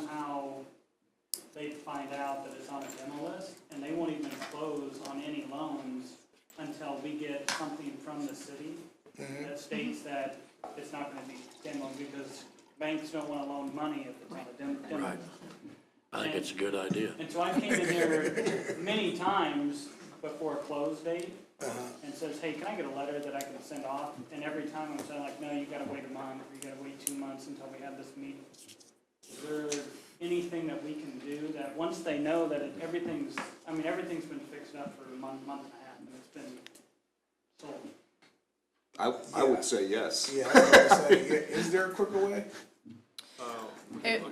somehow they find out that it's on a demo list, and they won't even close on any loans until we get something from the city that states that it's not gonna be demo, because banks don't wanna loan money if it's on a dem- demo. Right. I think it's a good idea. And so I came in there many times before close date and says, hey, can I get a letter that I can send off? And every time I'm saying like, no, you gotta wait a month, or you gotta wait two months until we have this meeting. Is there anything that we can do that, once they know that it- everything's, I mean, everything's been fixed up for a month, month and a half, and it's been sold. I, I would say yes. Yeah, I was gonna say, yeah, is there a quicker way? It,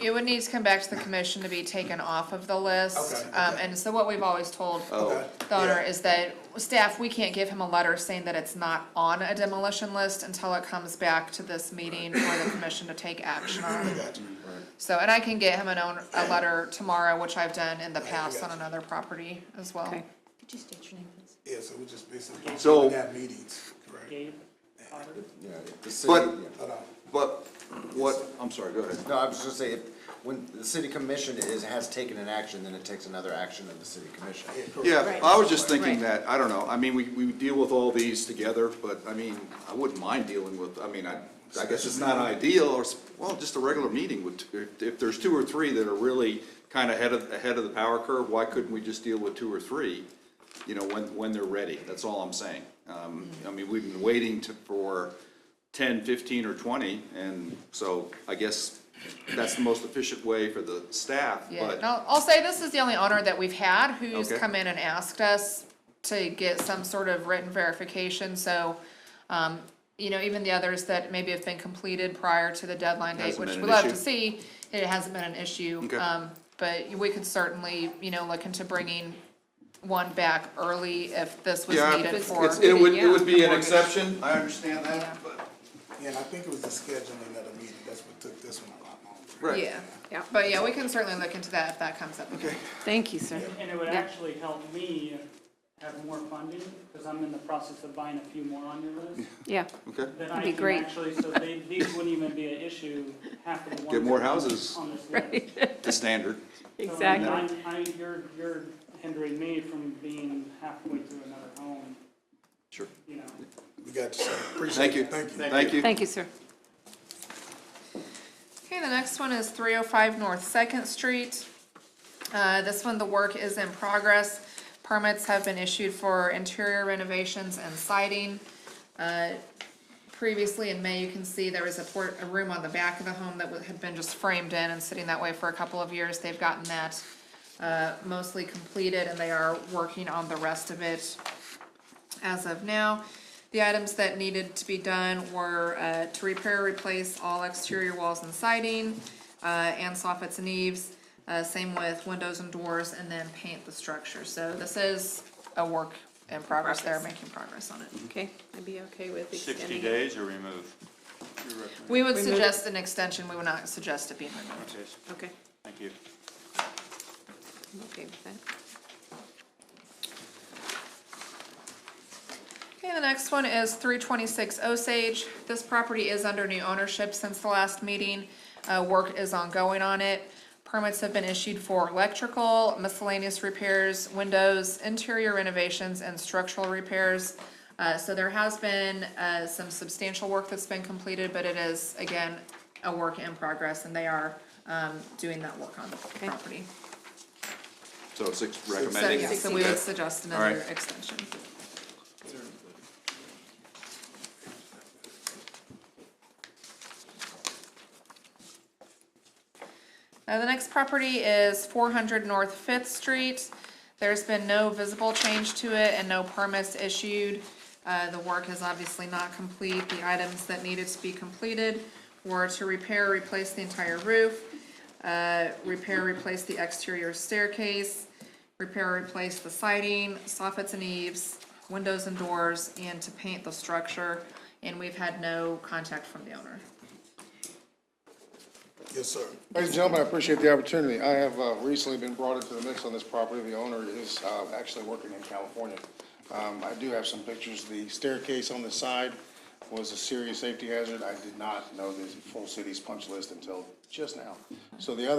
it would need to come back to the commission to be taken off of the list. Okay. Um, and so what we've always told Oh, the owner is that staff, we can't give him a letter saying that it's not on a demolition list until it comes back to this meeting for the commission to take action on. Gotcha. So, and I can get him an own, a letter tomorrow, which I've done in the I past on gotcha. another property as well. Okay. Could you state your name, please? Yeah, so we just basically. So- would Have meetings, right? Gabe, Robert? Yeah, if the city, But- yeah. Hold on. but what, I'm sorry, go ahead. No, I was just saying, if, when the city commission is, has taken an action, then it takes another action of the city commission. Yeah, correct. Yeah, Right. I was just thinking Right. that, I don't know, I mean, we, we deal with all these together, but I mean, I wouldn't mind dealing with, I mean, I, I guess it's not ideal, or, s- well, just a regular meeting with, if, if there's two or three that are really kind of ahead of, ahead of the power curve, why couldn't we just deal with two or three? You know, when, when they're ready, that's all I'm saying. Um, I mean, we've been waiting to, for ten, fifteen, or twenty, and so I guess that's the most efficient way for the staff, Yeah, but. and I'll, I'll say this is the only owner that we've had who's Okay. come in and asked us to get some sort of written verification, so, um, you know, even the others that maybe have been completed prior to the deadline date, Hasn't which been we an love to issue. see, it hasn't been an issue. Okay. Um, but we could certainly, you know, look into bringing one back early if this was Yeah, needed it's- for. it's- It would, it yeah, would be an mortgage. exception, I understand that, but. Yeah, and I think it was the scheduling of the meeting, that's what took this one a lot longer. Right. Yeah, Yeah. but yeah, we can certainly look into that if that comes up again. Thank you, sir. And it would Yeah. actually help me have more funding, because I'm in the process of buying a few more on your list. Yeah, Okay. Then That'd I be can great. actually, so they, these wouldn't even be an issue, half of the ones. Get more that are houses. On this list. right, The standard. So exactly. I'm- I, you're, you're hindering me from being halfway through another home, Sure. you know. We got you, sir. Thank appreciate you. it, thank you. Thank you. Thank you, sir. Okay, the next one is three oh five North Second Street. Uh, this one, the work is in progress. Permits have been issued for interior renovations and siding. Uh, Previously in May, you can see there was a port, a room on the back of the home that wa- had been just framed in and sitting that way for a couple of years. They've gotten that uh, mostly completed and they are working on the rest of it as of now. The items that needed to be done were uh, to repair, replace all exterior walls and siding, uh, and soffits and eaves, uh, same with windows and doors, and then paint the structure. So this is a work in progress. They're making progress on it. Okay, I'd be okay with Sixty extending. it. days or remove? We would Remove it? suggest an extension, we would not suggest it being removed. Okay, Okay, thank you. I'm okay with that. Okay, the next one is three twenty-six Osage. This property is under new ownership since the last meeting. Uh, work is ongoing on it. Permits have been issued for electrical, miscellaneous repairs, windows, interior renovations, and structural repairs. Uh, so there has been, uh, some substantial work that's been completed, but it is, again, a work in progress, and they are, um, doing that work on the property. So six So, recommending. yeah, so we would suggest All another right. extension. Now, the next property is four hundred North Fifth Street. There's been no visible change to it and no permits issued. Uh, the work is obviously not complete. The items that needed to be completed were to repair, replace the entire roof, uh, repair, replace the exterior staircase, repair, replace the siding, soffits and eaves, windows and doors, and to paint the structure. And we've had no contact from the owner. Yes, sir. Ladies and gentlemen, I appreciate the opportunity. I have uh, recently been brought into the mix on this property. The owner is uh, actually working in California. Um, I do have some pictures. The staircase on the side was a serious safety hazard. I did not know the full city's punch list until just now. So the other